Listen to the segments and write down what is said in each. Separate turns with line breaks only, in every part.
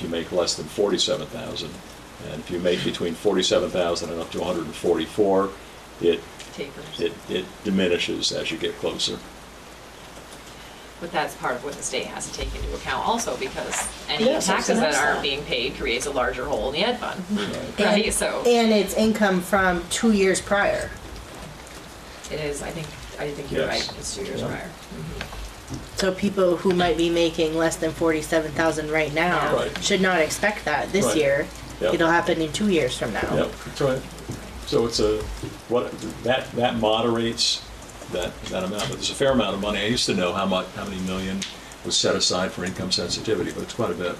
you make less than forty-seven thousand. And if you make between forty-seven thousand and up to one hundred and forty-four, it,
tapers.
it, it diminishes as you get closer.
But that's part of what the state has to take into account also, because any
Yes, I was
taxes
gonna
that
ask
aren't
that.
being paid creates a larger hole in the ed fund,
Right.
And-
right? So
And it's income from two years prior.
it is, I think, I think you're
Yes.
right, it's two years
Yeah.
prior.
So people who might be making less than forty-seven thousand right now
Right.
should not expect that this
Right.
year.
Yep.
It'll happen in two years from now.
Yep, that's right. So it's a, what, that, that moderates that, that amount, but there's a fair amount of money. I used to know how much, how many million was set aside for income sensitivity, but it's quite a bit.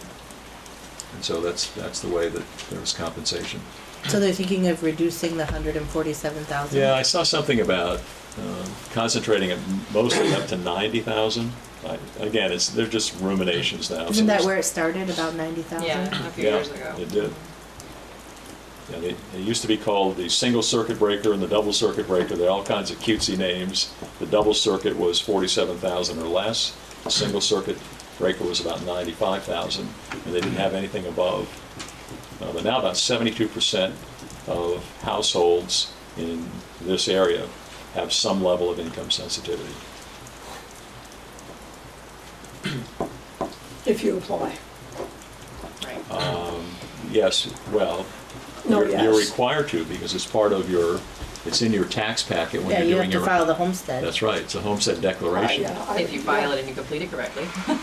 And so that's, that's the way that there was compensation.
So they're thinking of reducing the hundred and forty-seven thousand.
Yeah, I saw something about um, concentrating it mostly up to 90,000. I- Again, it's, they're just ruminations now. so
Isn't that
there's-
where it started, about ninety thousand?
Yeah, a few
Yeah,
years ago.
It did. Yeah, they, they used to be called the single circuit breaker and the double circuit breaker. They're all kinds of cutesy names. The double circuit was forty-seven thousand or less. The single circuit breaker was about ninety-five thousand, and they didn't have anything above. Uh, but now about seventy-two percent of households in this area have some level of income sensitivity.
if you apply.
Right.
Um, Yes, well,
No,
you're you're
yes.
required to because it's part of your, it's in your tax packet when
Yeah,
you're
you
doing
have
your.
to file Ah, the homestead.
That's right, it's a homestead declaration.
I, uh, I-
If you file it and you complete it correctly.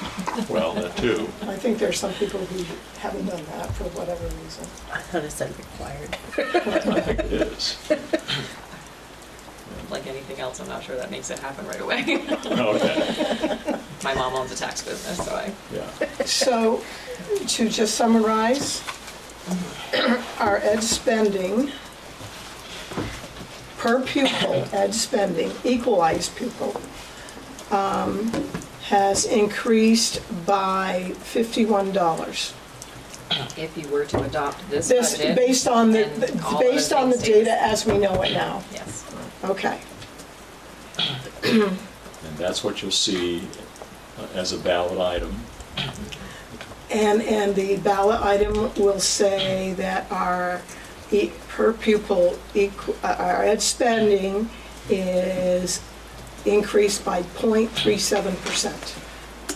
Well, that too.
I think there's some people who haven't done that for whatever reason.
I thought it said required.
I think it is.
Like anything else, I'm not sure that makes it happen right away.
Okay,
My mom owns a tax business, so I,
yeah.
So, to just summarize, our ed spending, per pupil ed spending, equalized pupil, um, has increased by $51.
if you were to adopt this
This,
budget.
based on the,
and all
based
other
on the
things
data as we know it now.
stated. Yes.
Okay,
And that's what you'll see uh, as a ballot item.
and, and the ballot item will say that our e- per pupil, equ- uh, our ed spending is increased by 0.37%.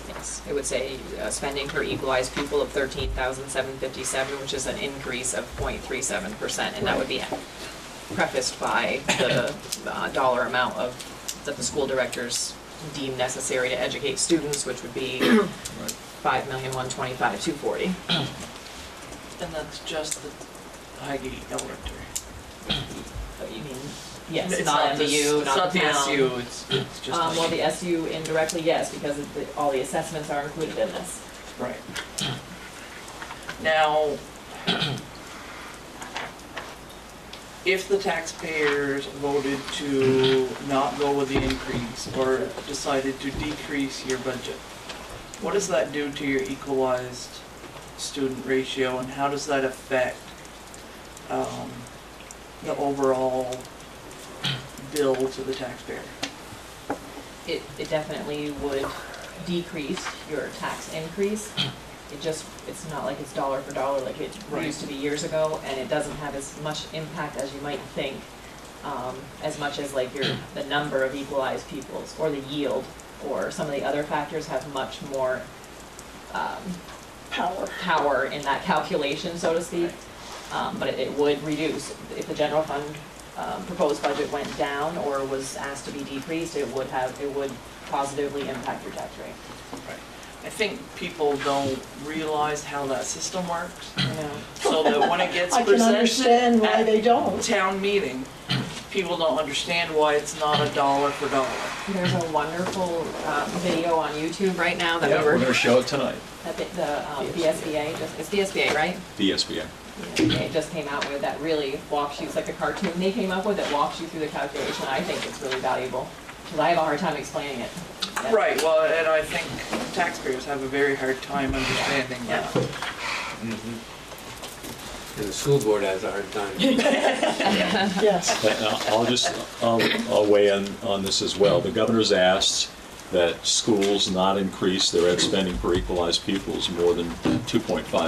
Yes, it would say uh, spending per equalized pupil of thirteen thousand seven fifty-seven, which is an increase of 0.37 percent, and that would be prefaced by the uh, dollar amount of, that the school directors deem necessary to educate students, which would be five million one twenty-five two forty.
And that's just the Highgate Elementary.
But you mean, yes,
It's
not
the-
MBU,
It's not
not the
the
town.
SU, it's, it's just
Um, well, the
Highgate.
SU indirectly, yes, because of the- all the assessments are included in this.
Right. Now, if the taxpayers voted to not go with the increase or decided to decrease your budget, what does that do to your equalized student ratio and how does that affect um, the overall bill to the taxpayer?
it, it definitely would decrease your tax increase. It just, it's not like it's dollar for dollar like it
Right.
used to be years ago, and it doesn't have as much impact as you might think, um, as much as like your, the number of equalized pupils, or the yield, or some of the other factors have much more, um,
Power.
power in that calculation, so to speak. Um, But it- it would reduce, if the general fund um, proposed budget went down or was asked to be decreased, it would have, it would positively impact your tax rate.
I think people don't realize how that system works.
You know,
so that when it gets
I can understand
presented
why
at
they don't.
town meeting, people don't understand why it's not a dollar for dollar.
There's a wonderful um, video on YouTube right now that
Yeah,
we
we're
were,
gonna show it tonight,
that the- the um, BSBA, just- it's BSBA, right?
the SBA.
It just came out with that really walks you, it's like a cartoon they came up with that walks you through the calculation. I think it's really valuable, because I have a hard time explaining it. Yeah.
Right, well, and I think taxpayers have a very hard time understanding
Yeah.
that.
And the school board has a hard time.
Yes.
But I'll I'll just, I'll I'll weigh in on this as well. The governor's asked that schools not increase their ed spending per equalized pupils more than 2.5